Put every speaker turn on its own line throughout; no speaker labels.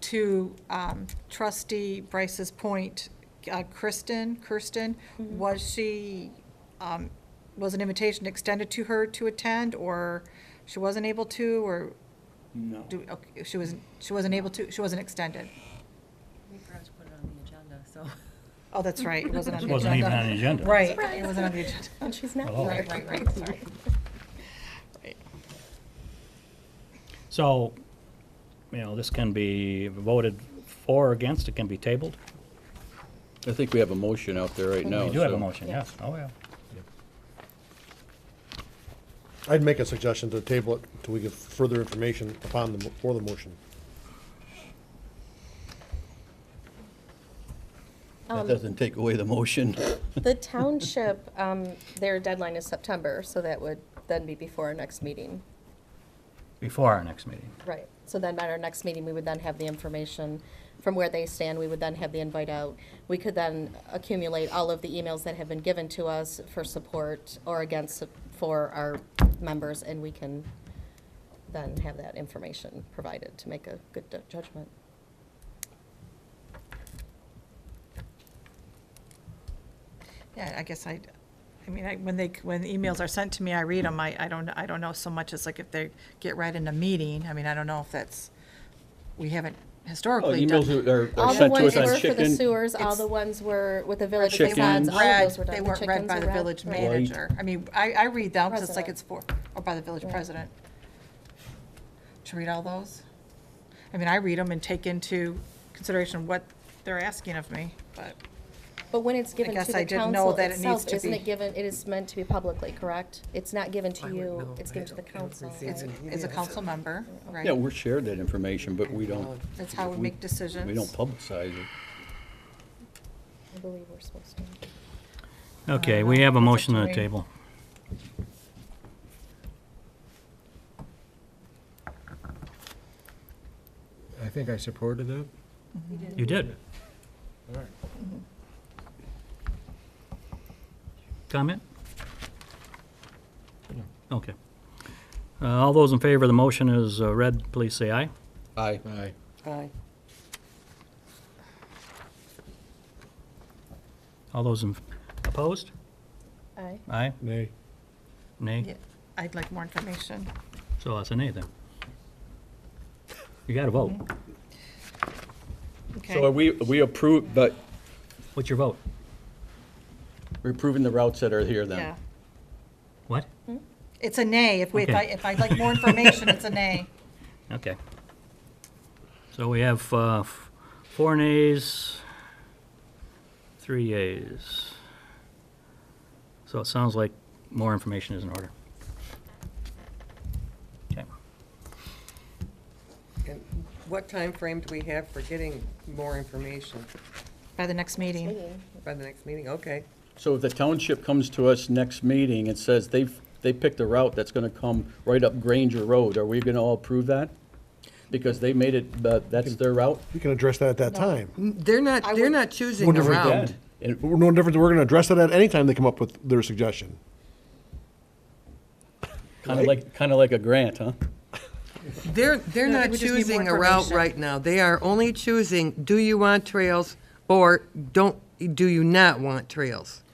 to um, trustee Bryce's point, uh, Kristen, Kirsten, was she, um, was an invitation extended to her to attend, or she wasn't able to, or
No.
do, okay, she wasn't, she wasn't able to, she wasn't extended?
We forgot to put it on the agenda, so.
Oh, that's right, it wasn't on
It
the agenda.
wasn't even on the agenda. Oh.
Right, it wasn't on the agenda.
And she's not
Hello.
here.
Right, right, right, sorry. Right.
So, you know, this can be voted for or against, it can be tabled.
I think we have a motion out there right now.
We do have a
so-
motion, yes, oh, yeah.
I'd make a suggestion to table it until we get further information upon the, mo- for the motion.
That doesn't take away the motion.
The township, um, their deadline is September, so that would then be before our next meeting.
Before our next meeting.
Right. So then at our next meeting, we would then have the information from where they stand. We would then have the invite out. We could then accumulate all of the emails that have been given to us for support or against for our members, and we can then have that information provided to make a good judgment.
Yeah, I guess I, I mean, I, when they, when emails are sent to me, I read them, I, I don't, I don't know so much, it's like if they get right in a meeting, I mean, I don't know if that's, we haven't historically done.
Oh, Emails are- are
All
are
the
sent to
ones
us on
were for the
chicken.
sewers, all
It's-
the ones were with the village
They
of Ponds,
weren't
all of
read,
those were done.
they
The
weren't read
chickens
by
are
the village
right.
manager, I mean, I, I read them, 'cause it's like
President.
it's for, or by the village
Right.
president. To read all those? I mean, I read them and take into consideration what they're asking of me, but,
But when it's given
guess
to
I
the
didn't know
council
that it needs
itself,
to
isn't
be-
it given, it is meant to be publicly, correct? It's not given
I
to
would
you,
know.
it's
I
given to the
don't- I don't
council.
receive
right?
it.
as a council member, right?
Yeah, we're shared that information, but we don't.
That's how we make decisions.
We don't publicize it.
I believe we're supposed to.
Okay, we have a
It's up
motion
to
on the
me.
table.
I think I supported it.
You did. Mm-hmm.
All right.
Comment? Okay. Uh, All those in favor of the motion is uh, read, please say aye.
Aye.
Aye.
Uh,
All those in, opposed?
Aye.
Aye?
Nay.
Yeah,
Nay?
I'd like more information.
So that's a nay then. You gotta vote.
Okay.
So are we, we approve, but
What's your vote?
we're approving the routes that are here
Yeah.
then?
What?
It's a nay. If we, if I,
Okay.
if I'd like more information, it's a nay.
Okay. So we have uh, f- four nays, three yays. So it sounds like more information is in order. Okay.
And What time frame do we have for getting more information
By the next meeting.
Meeting.
by the next meeting? Okay.
So if the township comes to us next meeting and says they've, they picked a route that's gonna come right up Granger Road, are we gonna all approve that? Because they made it, but that's their route?
You can address that at that time.
They're not,
I
they're
would-
not choosing
Wonder
a
if we
route.
And
We're no different, we're gonna address that at any time they come up with their suggestion.
kinda like, kinda like a grant, huh?
They're, they're
No,
not
we just need
choosing
more
a route
information.
right now. They are only choosing, do you want trails or don't, do you not want trails?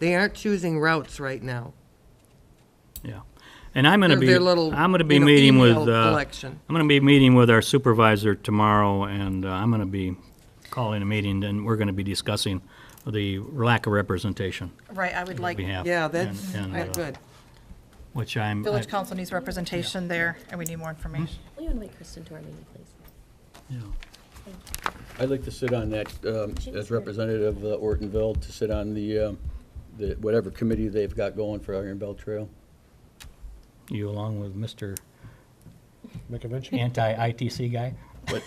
They aren't choosing routes right now.
Yeah. And I'm gonna
Their-
be,
their little,
I'm gonna be
you know,
meeting with,
email
uh,
collection.
I'm gonna be meeting with our supervisor tomorrow, and uh, I'm gonna be calling a meeting, and we're gonna be discussing the lack of representation
Right, I would like,
we have.
Yeah, that's,
and- and,
that's
uh,
good.
Which I'm,
village
I-
council needs representation there and we need more information.
Will you invite Kristen to our meeting, please?
yeah.
I'd like to sit on that, um, as representative of Ortonville, to sit on the, um, the, whatever committee they've got going for Iron Belt Trail.
you along with Mr.
Make a mention?
anti-ITC guy?
But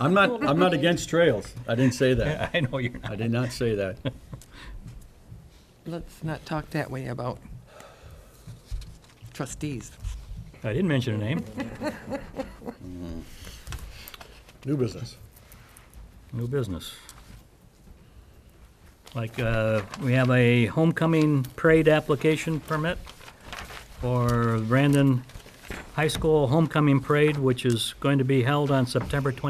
I'm not, I'm not against trails. I didn't say that.
I know you're not.
I did not say that.
Let's not talk that way about trustees.
I didn't mention a name.
New business.
New business. Like, uh, we have a homecoming parade application permit for Brandon High School Homecoming Parade, which is going to be held on September 20.